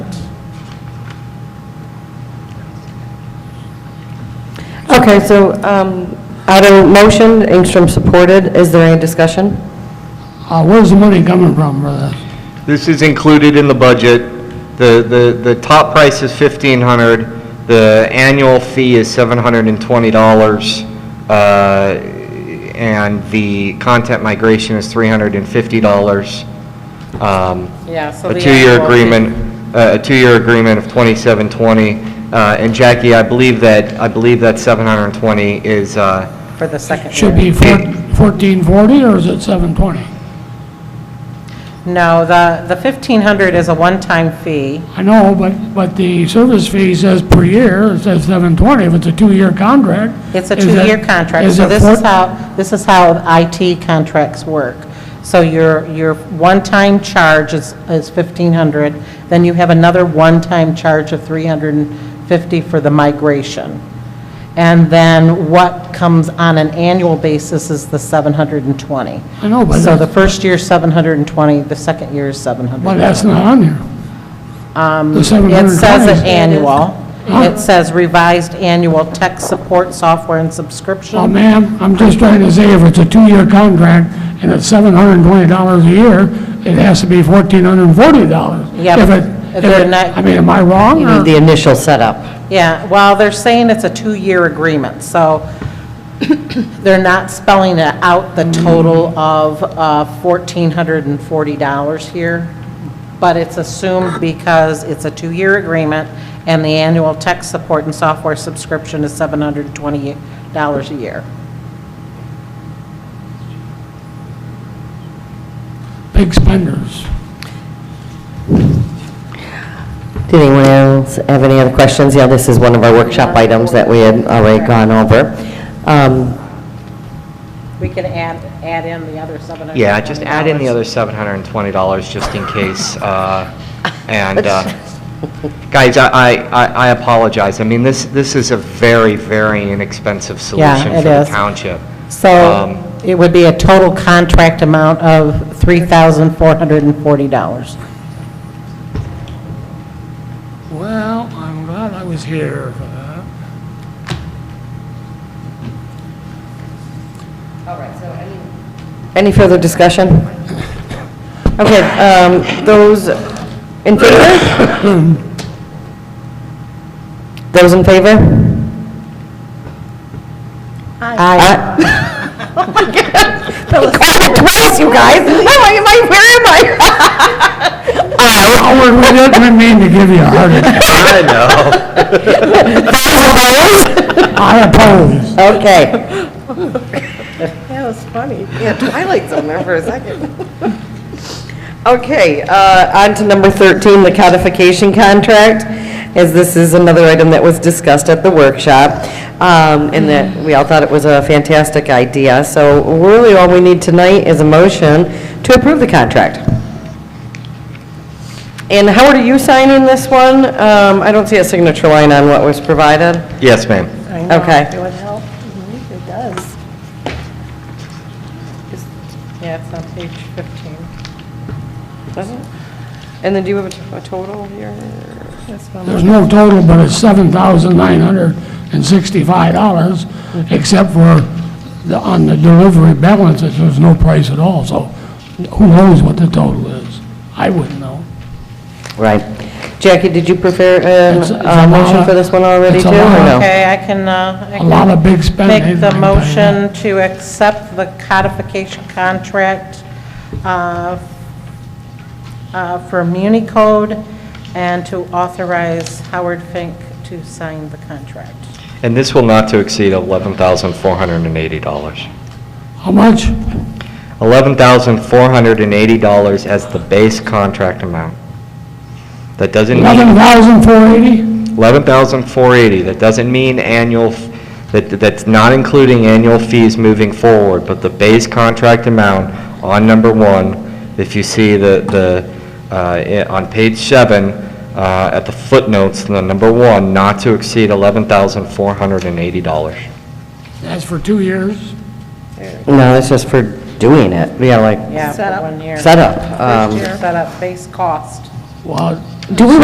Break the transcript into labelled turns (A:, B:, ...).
A: Okay, so um, auto motion, Ingstrom supported. Is there any discussion?
B: Uh, Where's the money coming from for this?
C: This is included in the budget. The, the, the top price is fifteen hundred, the annual fee is seven hundred and twenty dollars, uh, and the content migration is three hundred and fifty dollars. Um,
D: Yeah, so
C: a
D: the
C: two-year
D: annual fee.
C: agreement, uh, a two-year agreement of twenty-seven twenty. Uh, and Jackie, I believe that, I believe that seven hundred and twenty is, uh,
D: for the second
B: Should
D: year.
B: be fourteen forty, or is it seven twenty?
D: No, the, the 1,500 is a one-time fee.
B: I know, but, but the service fee says per year, it says seven twenty, if it's a two-year contract.
D: It's a
B: is it-
D: two-year contract, so
B: it
D: this is
B: four-
D: how, this is how IT contracts work. So your, your one-time charge is, is 1,500, then you have another one-time charge of 350 for the migration. And then what comes on an annual basis is the 720.
B: I know, but
D: So the
B: that's,
D: first year's 720, the second year's 700.
B: but that's not on here. The seven
D: Um, It
B: hundred
D: says an
B: twenty.
D: annual. It says revised annual tech support software and subscription.
B: Well, Uh, ma'am, I'm just trying to say, if it's a two-year contract, and it's seven hundred and twenty dollars a year, it has to be fourteen hundred and forty dollars.
D: Yeah,
B: If
D: but
B: it,
D: if
B: if
D: they're
B: it,
D: not-
B: I mean, am I wrong,
A: You
B: or?
A: need the initial setup.
D: Yeah, well, they're saying it's a two-year agreement, so they're not spelling it out the total of uh, $1,440 here, but it's assumed because it's a two-year agreement and the annual tech support and software subscription is $720 a year.
B: Big spenders.
A: Did anyone else have any other questions? Yeah, this is one of our workshop items that we had already gone over. Um,
D: We can add, add in the other 700.
C: Yeah, just add in the other seven hundred and twenty dollars just in case, uh, and, uh, guys, I, I- I I apologize, I mean, this, this is a very, very inexpensive
D: Yeah,
C: solution
D: it
C: for the
D: is.
C: township. Um,
D: So it would be a total contract amount of $3,440.
B: Well, I'm glad I was here for that.
A: Any further discussion? Okay, um, those in favor? Those in favor? Aye. Oh That was it twice, you guys. I'm like, am I- where am I?
B: Howard, we didn't mean to give you a heart attack.
A: Those opposed?
C: I know.
B: I oppose.
A: Okay.
E: That was funny. Yeah, Twilight's on there for a second.
A: Okay, uh, on to number 13, the codification contract, as this is another item that was discussed at the workshop, um, and that we all thought it was a fantastic idea. So really, all we need tonight is a motion to approve the contract. And Howard, are you signing this one? Um, I don't see a signature line on what was provided.
C: Yes, ma'am.
A: Okay. Mm-hmm.
E: It does.
D: Yeah, it's on page 15.
A: And then do you have a a total here?
B: There's no total, but it's seven thousand nine hundred and sixty-five dollars, except for the, on the delivery balance, it was no price at all, so who knows what the total is? I wouldn't know.
A: Right. Jackie, did you prepare
B: It's- it's
A: uh, a
B: a
A: motion
B: lot-
A: for this one already,
B: it's
A: too,
B: a
A: or
B: lot.
A: no?
D: Okay, I can, uh, I
B: A lot of
D: can
B: big spending.
D: make the
B: like that.
D: motion to accept the codification contract uh, uh, for Muni Code and to authorize Howard Fink to sign the contract.
C: And this will not to exceed eleven thousand four hundred and eighty dollars.
B: How much?
C: Eleven thousand four hundred and eighty dollars as the base contract amount. That doesn't mean.
B: Eleven thousand four eighty?
C: 11,480, that doesn't mean annual, f- that, that's not including annual fees moving forward, but the base contract amount on number one, if you see the, the, uh, i- on page seven, uh, at the footnotes, the number one, not to exceed $11,480.
B: That's for two years?
A: No, it's just for doing it, yeah, like
D: Yeah, for one year.
A: setup. Um,
D: Set up base cost.
B: Well,
A: Do we